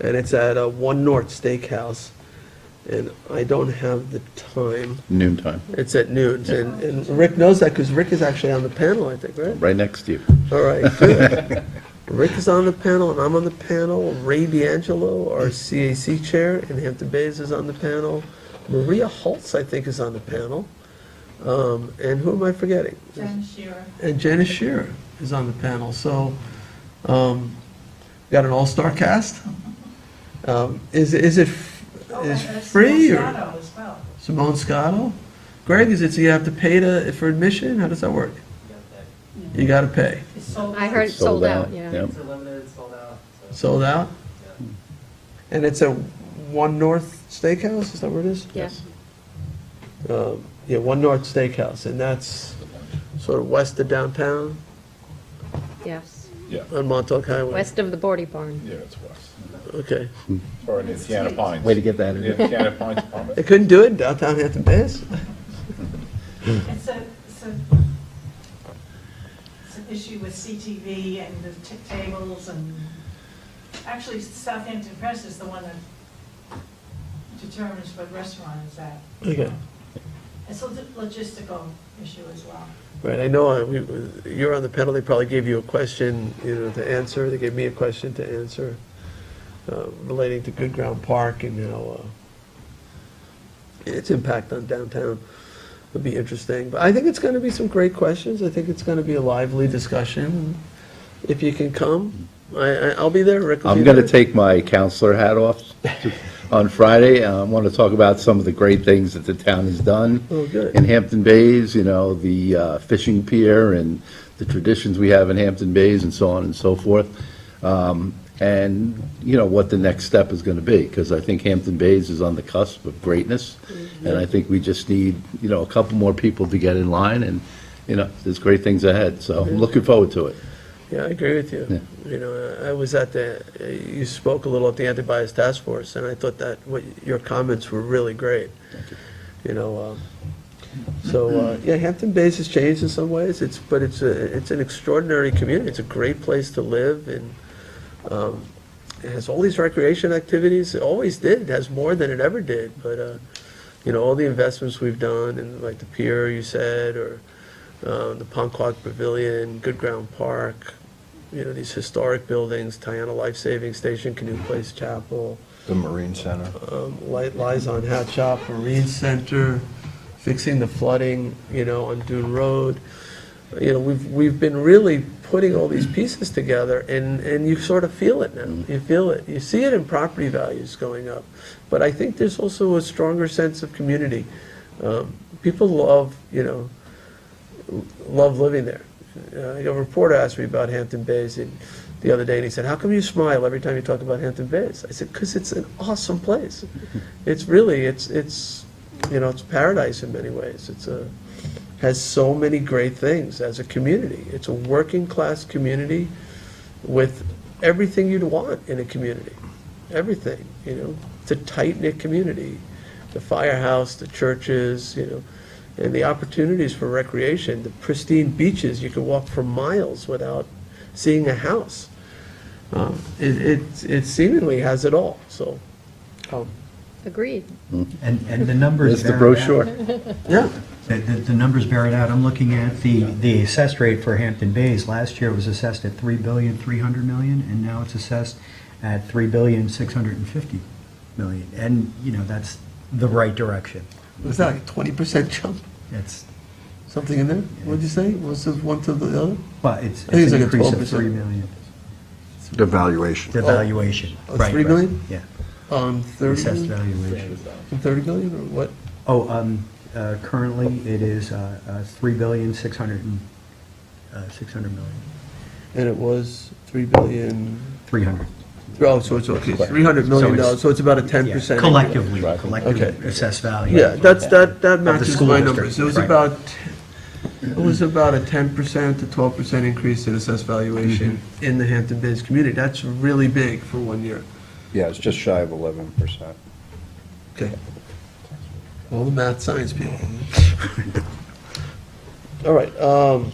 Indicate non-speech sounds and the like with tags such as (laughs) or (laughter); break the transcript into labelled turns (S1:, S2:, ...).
S1: and it's at uh, One North Steakhouse. And I don't have the time.
S2: noon time,
S1: It's at noon, and, and Rick knows that because Rick is actually on the panel, I think, right?
S2: right next to you.
S1: All right, good. Rick is on the panel, and I'm on the panel. Ray D'Angelo, our CAC chair, and Hampton Bays is on the panel. Maria Holtz, I think, is on the panel. Um, and who am I forgetting?
S3: Jen Shearer.
S1: And Janice Shearer is on the panel, so, um, got an all-star cast. Um, is, is it, f-
S3: Oh, and a small
S1: is free or?
S3: shadow as well.
S1: Simone Scotto? Greg, is it, so you have to pay to, for admission? How does that work? You gotta pay.
S3: It's sold
S4: I
S3: out.
S4: heard it sold out, yeah.
S2: Yep.
S5: It's a limited, sold out, so,
S1: Sold out?
S5: yeah.
S1: And it's a One North Steakhouse, is that where it is?
S4: Yeah.
S1: Um, Yeah, One North Steakhouse, and that's sort of west of downtown
S4: Yes,
S6: Yeah,
S1: on Montauk Highway.
S4: west of the Bordy Barn.
S6: yeah, it's west.
S1: Okay.
S6: Or in Indiana Pines.
S2: Way to get that in.
S6: Indiana Pines Apartment.
S1: They couldn't do it in downtown Hampton Bays? (laughs)
S3: It's a, it's a, it's an issue with CTV and the t- tables and, actually Southampton Press is the one that determines what restaurant is at.
S1: Okay.
S3: It's a lo- logistical issue as well.
S1: Right, I know, I- we- you're on the panel, they probably gave you a question, you know, to answer, they gave me a question to answer uh, relating to Good Ground Park and how, uh, its impact on downtown would be interesting. But I think it's gonna be some great questions, I think it's gonna be a lively discussion. If you can come, I, I- I'll be there, Rick will be
S2: I'm
S1: there.
S2: going to take my counselor hat (laughs) off on Friday. I want to talk about some of the great things that the town has done.
S1: Oh, good.
S2: In Hampton Bays, you know, the uh, fishing pier and the traditions we have in Hampton Bays and so on and so forth. Um, And, you know, what the next step is going to be, because I think Hampton Bays is on the cusp of greatness. And I think we just need, you know, a couple more people to get in line and, you know, there's great things ahead. So I'm looking forward to it.
S1: Yeah, I agree with you. You know, uh, I was at the, you spoke a little at the anti-bias task force, and I thought that what, your comments were really great. You know, um, so, uh, yeah, Hampton Bays has changed in some ways, it's, but it's a, it's an extraordinary community, it's a great place to live, and, um, it has all these recreation activities, it always did, it has more than it ever did, but, uh, you know, all the investments we've done, in like the pier you said, or, uh, the Ponquag Pavilion, Good Ground Park, you know, these historic buildings, Tiana Life Saving Station, Canoe Place Chapel,
S7: The Marine Center.
S1: um, Light Lies on Hat Shop, Marine Center, fixing the flooding, you know, on Dune Road. You know, we've, we've been really putting all these pieces together, and, and you sort of feel it now. You feel it. You see it in property values going up. But I think there's also a stronger sense of community. Um, People love, you know, love living there. Uh, A reporter asked me about Hampton Bays and- the other day, and he said, "How come you smile every time you talk about Hampton Bays?" I said, "Because it's an awesome place. It's really, it's, it's, you know, it's paradise in many ways. It's a, has so many great things as a community. It's a working-class community with everything you'd want in a community, everything, you know. It's a tight-knit community, the firehouse, the churches, you know, and the opportunities for recreation, the pristine beaches, you can walk for miles without seeing a house. Um, It, it- it seemingly has it all, so, um,
S4: Agreed.
S8: And, and the numbers
S2: There's
S8: bear
S2: the
S8: it out.
S2: brochure.
S1: yeah.
S8: The, the the numbers bear it out. I'm looking at the, the assessed rate for Hampton Bays. Last year it was assessed at three billion, three hundred million, and now it's assessed at three billion, six hundred and fifty million. And, you know, that's the right direction.
S1: Was that like a twenty percent jump,
S8: It's,
S1: something in there? What'd you say? Was it one to the other?
S8: but it's,
S1: I think it's
S8: it's
S1: like
S8: an
S1: a
S8: increase of
S1: 12%.
S8: three million.
S7: The valuation.
S8: The valuation.
S1: Oh,
S8: Right,
S1: three
S8: right.
S1: million?
S8: Yeah,
S1: On
S8: assessed
S1: Um, thirty,
S8: valuation.
S1: thirty million or what?
S8: Oh, um, uh, currently it is, uh, uh, three billion, six hundred and, uh, six hundred million,
S1: And it was three billion,
S8: three hundred.
S1: oh, so it's, okay, three hundred million
S8: So
S1: dollars,
S8: it's-
S1: so it's about a ten percent.
S8: Collectively,
S2: Right.
S1: Okay.
S8: collectively assessed value.
S1: Yeah, that's, that, that
S8: the
S1: matches
S8: school
S1: my
S8: district,
S1: numbers. It was
S8: right.
S1: about, it was about a ten percent to twelve percent increase in assessed valuation in the Hampton Bays community. That's really big for one year.
S7: Yeah, it's just shy of 11%.
S1: Okay. (laughs) All the math science people. All right, um,